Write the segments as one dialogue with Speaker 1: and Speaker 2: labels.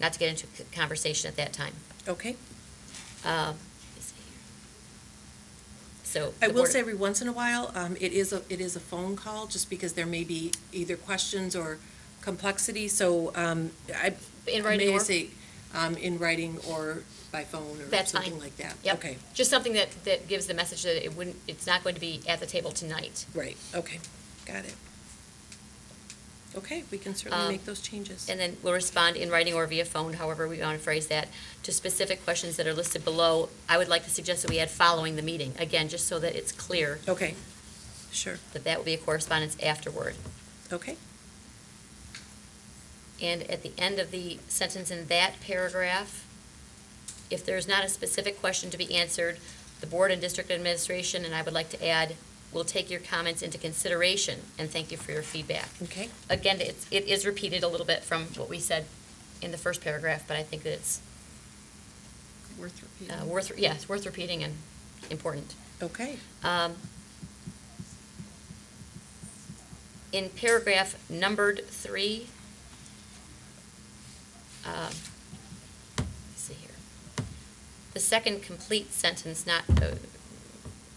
Speaker 1: not to get into a conversation at that time.
Speaker 2: Okay.
Speaker 1: Um, let's see here. So.
Speaker 2: I
Speaker 1: the
Speaker 2: will
Speaker 1: Board-
Speaker 2: say every once in a while, um, it is a, it is a phone call, just because there may be either questions or complexity, so, um, I.
Speaker 1: In writing
Speaker 2: May I
Speaker 1: or-
Speaker 2: say, um, in writing or by phone or
Speaker 1: That's fine.
Speaker 2: something like that?
Speaker 1: Yep.
Speaker 2: Okay,
Speaker 1: Just something that, that gives the message that it wouldn't, it's not going to be at the table tonight.
Speaker 2: right, okay, got it. Okay, we can certainly
Speaker 1: Um,
Speaker 2: make those changes.
Speaker 1: And then we'll respond in writing or via phone, however we want to phrase that, to specific questions that are listed below. I would like to suggest that we add following the meeting, again, just so that it's clear
Speaker 2: Okay, sure,
Speaker 1: that that will be a correspondence afterward.
Speaker 2: okay,
Speaker 1: And at the end of the sentence in that paragraph, if there's not a specific question to be answered, the board and district administration, and I would like to add, will take your comments into consideration and thank you for your feedback.
Speaker 2: okay,
Speaker 1: Again, it's, it is repeated a little bit from what we said in the first paragraph, but I think that it's
Speaker 2: worth
Speaker 1: uh,
Speaker 2: repeating.
Speaker 1: worth, yeah, it's worth repeating and important.
Speaker 2: Okay,
Speaker 1: Um, In paragraph numbered three, um, let's see here, the second complete sentence, not, uh,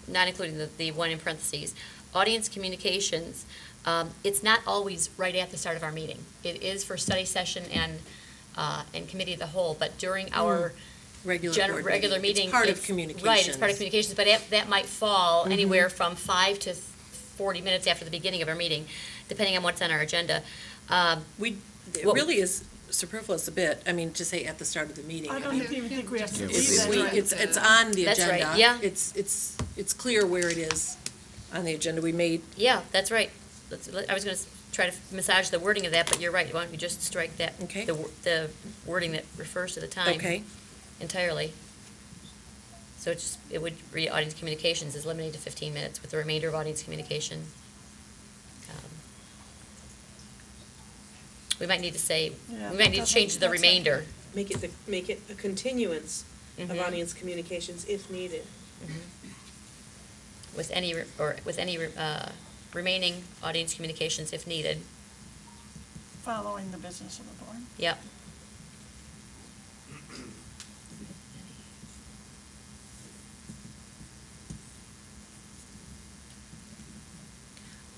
Speaker 1: not including the, the one in parentheses, audience communications, um, it's not always right at the start of our meeting. It is for study session and, uh, and committee of the whole, but during our
Speaker 2: Hmm. regular
Speaker 1: gen-
Speaker 2: board
Speaker 1: regular meeting.
Speaker 2: It's part of
Speaker 1: it's-
Speaker 2: communications.
Speaker 1: Right, it's part of communications, but that, that might
Speaker 2: Mm-hmm.
Speaker 1: fall anywhere from five to forty minutes after the beginning of our meeting, depending on what's on our agenda. Um,
Speaker 2: We, it
Speaker 1: What-
Speaker 2: really is superfluous a bit, I mean, to say at the start of the meeting.
Speaker 3: I don't
Speaker 2: mean,
Speaker 3: even think we have to
Speaker 4: Yeah,
Speaker 3: do
Speaker 4: we
Speaker 2: It's,
Speaker 4: do.
Speaker 3: that.
Speaker 2: we, it's, it's on the
Speaker 1: That's right,
Speaker 2: agenda.
Speaker 1: yeah.
Speaker 2: It's, it's, it's clear where it is on the agenda. We made,
Speaker 1: Yeah, that's right. Let's, let- I was gonna s- try to massage the wording of that, but you're right, why don't we just strike that?
Speaker 2: Okay.
Speaker 1: The, wor- the wording that refers to the time.
Speaker 2: okay,
Speaker 1: Entirely. So it's, just- it would read audience communications is limited to fifteen minutes with the remainder of audience communication. um, We might need to say,
Speaker 3: Yeah,
Speaker 1: we might need to
Speaker 3: that's-
Speaker 1: change the
Speaker 3: that's-
Speaker 1: remainder.
Speaker 5: Make it, the make it a continuance of
Speaker 1: Mhm.
Speaker 5: audience communications if needed.
Speaker 1: Mm-hmm. with any, re- or with any uh, remaining audience communications if needed.
Speaker 3: Following the business of the board.
Speaker 1: Yep.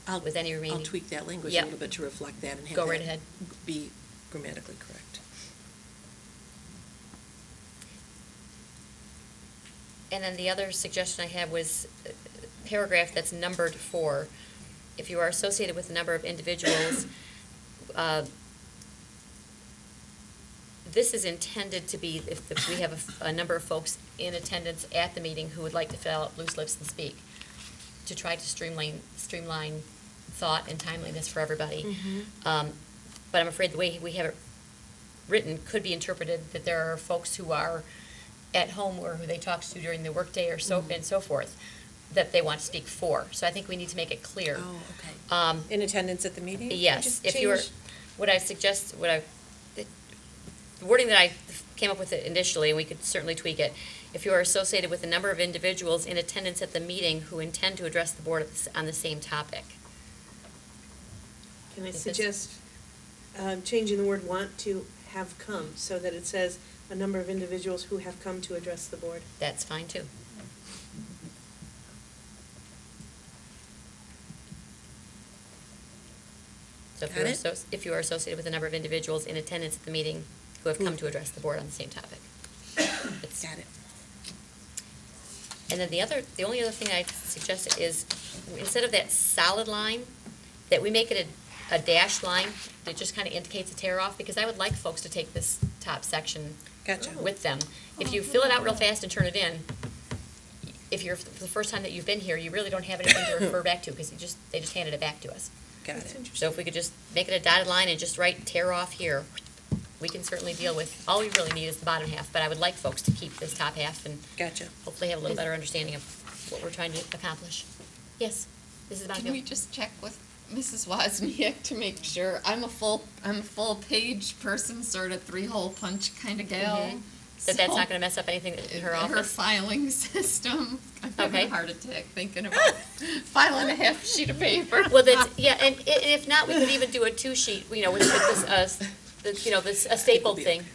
Speaker 2: I'll,
Speaker 1: With any
Speaker 2: I'll
Speaker 1: remaining-
Speaker 2: tweak that language a
Speaker 1: Yeah.
Speaker 2: little bit to reflect that and have
Speaker 1: Go right
Speaker 2: that
Speaker 1: ahead.
Speaker 2: Be grammatically correct.
Speaker 1: And then the other suggestion I had was uh, paragraph that's numbered four. If you are associated with a number of individuals, uh, this is intended to be if the- we have a f- a number of folks in attendance at the meeting who would like to fill out loose lips and speak, to try to streamline, streamline thought and timeliness for everybody. Um, But I'm afraid the way we have it written could be interpreted that there are folks who are at home or who they talk to during the workday or so,
Speaker 2: Mm.
Speaker 1: and so forth, that they want to speak for. So I think we need to make it clear.
Speaker 2: Oh, okay.
Speaker 1: Um,
Speaker 2: In attendance at the meeting?
Speaker 1: Yes,
Speaker 2: Just
Speaker 1: if you were,
Speaker 2: change-
Speaker 1: what I suggest, what I, the wording that I came up with it initially, we could certainly tweak it. If you are associated with a number of individuals in attendance at the meeting who intend to address the board at the s- on the same topic.
Speaker 5: Can I
Speaker 1: Yes.
Speaker 5: suggest um, changing the word want to have come, so that it says a number of individuals who have come to address the board?
Speaker 1: That's fine too. So if
Speaker 2: Got
Speaker 1: you're,
Speaker 2: it?
Speaker 1: associ- if you are associated with a number of individuals in attendance at the meeting who have come to address the board on the same topic. It's-
Speaker 2: Got it.
Speaker 1: And then the other, the only other thing I suggested is, instead of that solid line, that we make it a, a dashed line that just kind of indicates a tear off, because I would like folks to take this top section
Speaker 2: Gotcha.
Speaker 6: Oh.
Speaker 1: with them. If you fill it out real fast and turn it in, if you're, for the first time that you've been here, you really don't have anything to refer back to, because you just, they just handed it back to us.
Speaker 2: Got
Speaker 5: That's
Speaker 2: it.
Speaker 1: So
Speaker 5: interesting.
Speaker 1: if we could just make it a dotted line and just write tear off here, we can certainly deal with, all we really need is the bottom half, but I would like folks to keep this top half and
Speaker 2: Gotcha.
Speaker 1: hopefully have a little better understanding of what we're trying to accomplish. Yes, this is about
Speaker 6: Can we just check with Mrs. Wozniak to make sure? I'm a full, I'm a full page person, sort of three hole punch kind of gal.
Speaker 1: That that's not
Speaker 6: so-
Speaker 1: gonna mess up anything in her
Speaker 6: Her
Speaker 1: office?
Speaker 6: filing system. I'm having
Speaker 1: Okay.
Speaker 6: a heart attack thinking about filing a half sheet of paper.
Speaker 1: Well, that's, yeah, and i- if not, we could even do a two-sheet, you know, which is, uh, s- the- you know, this, a stapled thing.